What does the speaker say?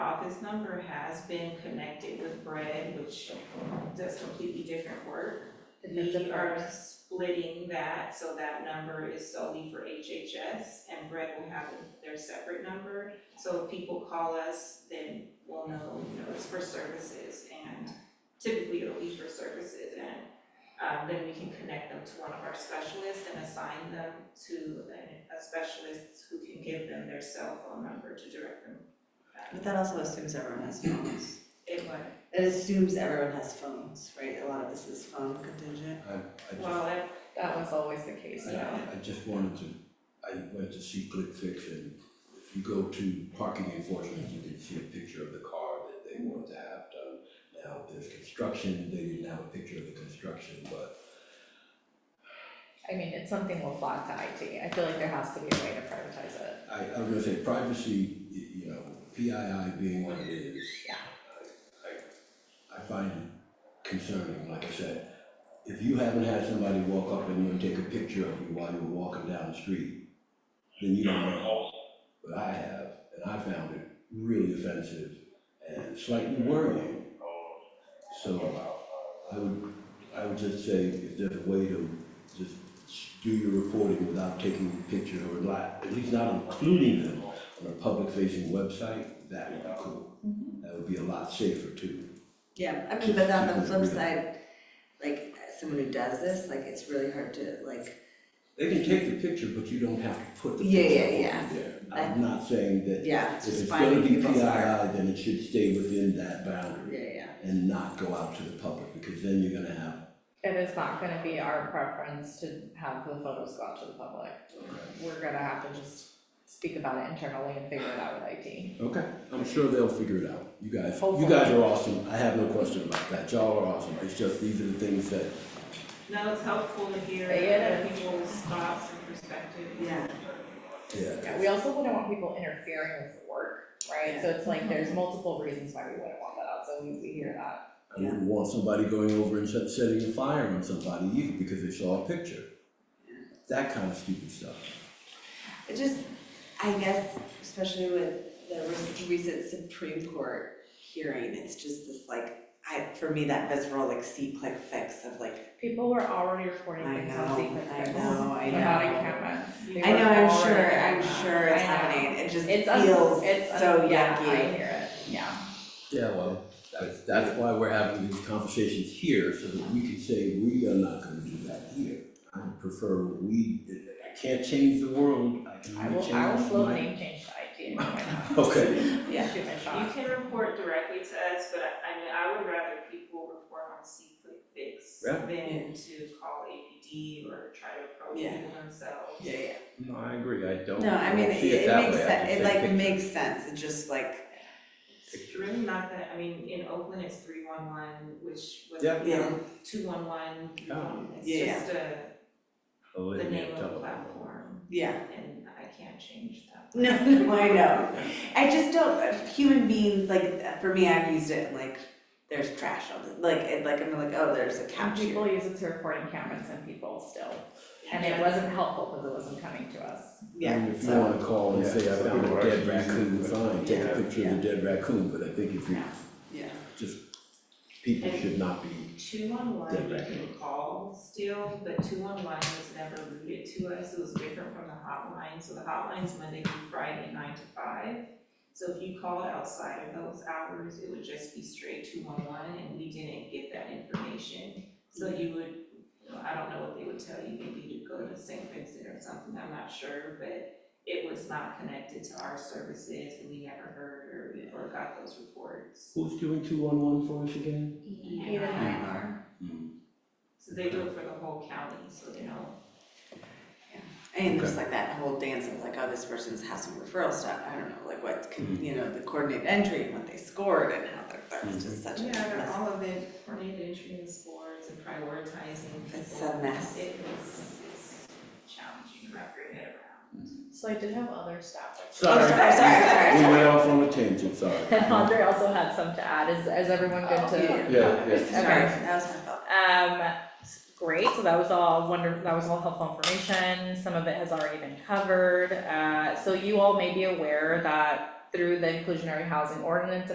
this number has been connected with Bread, which does completely different work. We are splitting that, so that number is solely for HHS and Bread will have their separate number. So if people call us, then we'll know, you know, it's for services and typically it'll be for services and um, then we can connect them to one of our specialists and assign them to an- a specialist who can give them their cell phone number to direct them. Um, But that also assumes everyone has phones. It would, It assumes everyone has phones, right? A lot of this is phone contingent. I, I just, well, that, That was always the case, I, yeah. I just wanted to, I went to see Click Fix and if you go to parking enforcement, you can see a picture of the car that they wanted to have done. Now, there's construction, they didn't have a picture of the construction, but I mean, it's something we'll flock to IT. I feel like there has to be a way to privatize it. I, I was gonna say privacy, y- you know, PII being what it is. Yeah. I, I, I find it concerning, like I said, if you haven't had somebody walk up and you take a picture of you while you were walking down the street, then you don't know. But I have, and I found it really offensive and slightly worrying. So I would, I would just say if there's a way to just do your reporting without taking a picture or not, at least not including them on a public facing website, that would be cool. Mm-hmm. That would be a lot safer too. Yeah, I mean, but on the flip side, like someone who does this, like it's really hard to like, They can take the picture, but you don't have to put the Yeah, picture yeah, on yeah. there. I'm not saying that yeah, it's if just it's gonna finding be people's. PII, then it should stay within that boundary Yeah, yeah, and not go out to the public, because then you're gonna have, It is not gonna be our preference to have the photos go out to the public. We're gonna have to just speak about it internally and figure it out with IT. Okay, I'm sure they'll figure it out. You guys, you Hopefully. guys are awesome. I have no question about that. Y'all are awesome. It's just, these are the things that, no, it's helpful to hear Yeah. other people's thoughts and perspectives. yeah. yeah. Yeah, we also wouldn't want people interfering with the work, right? So it's like, there's multiple reasons why we wouldn't want that out, so we, we hear that. I wouldn't want somebody going over and set- setting a fire on somebody either because they saw a picture. That kind of stupid stuff. It just, I guess, especially with the rec- recent Supreme Court hearing, it's just this like, I, for me, that visceral like see click fix of like, People were already reporting I things on know, secret I things. know, I know. Without a camera. They I know, were I'm already sure, doing I'm that. sure it's I know. happening, it just It's un- feels it's un- so yeah, I yucky. hear it, yeah. Yeah, well, that's, that's why we're having these conversations here, so that we can say, we are not gonna do that here. I prefer we, I can't change the world, I can I only will, I will change slow my- name change to IT. Why not? Okay, Yeah. Shoot my You shot. can report directly to us, but I- I mean, I would rather people report on C-Click Fix Yeah. than to call APD or try to approach Yeah. people themselves. Yeah, yeah. no, I agree, Oh, I don't, No, I mean, don't it see it it that makes way. I sense, just it say like picture. makes sense, it just like, It's really not that, I mean, in Oakland, it's three one one, which was, Yeah. you know, two one one, um, it's Yeah. just a, Oh, the it'd be a name of the double. platform, yeah. and I can't change that. No, no, I know. I just don't. uh, Human beings, like uh, for me, I've used it. Like there's trash on it. Like it, like I'm like, oh, there's a And couch here. people use it to report in cameras and people still, and it wasn't helpful because it wasn't coming to us. I Yeah. mean, if you So wanna call and Yeah, say, I so found people a are dead actually using raccoon, it. fine, take a Yeah. picture of the dead raccoon, but I think if you, yeah, just, people should not be, Two one one, Yeah, you right. can call still, but two one one was never routed to us, it was different from the hotline, so the hotline's Monday through Friday, nine to five. So if you called outside of those hours, it would just be straight two one one, and we didn't get that information. So you would, you know, I don't know what they would tell you, maybe to go to St. Vincent or something, I'm not sure, but it was not connected to our services, and we never heard or, or got those reports. who's doing two one one for us again? Eight and nine are. Hmm. So they do it for the whole county, so they know. and just like that whole dance of like, oh, this person's has some referral stuff. I don't know, like what could, Mm-hmm. you know, the coordinated entry and what they scored and how they're, that's just such a Yeah, they're mess. all of it, coordinated entry and scores and prioritizing people. It's a mess. It is, it's challenging to wrap your head around. So I did have other staff. Sorry. Oh, sorry, sorry, sorry, We sorry. went off on a tangent, sorry. And Andre also had some to add, is, is everyone good to? Yeah, Yeah, yeah. Okay, that was my fault. Um, s- great, so that was all wonder, that was all helpful information, some of it has already been covered. Uh, so you all may be aware that through the inclusionary housing ordinance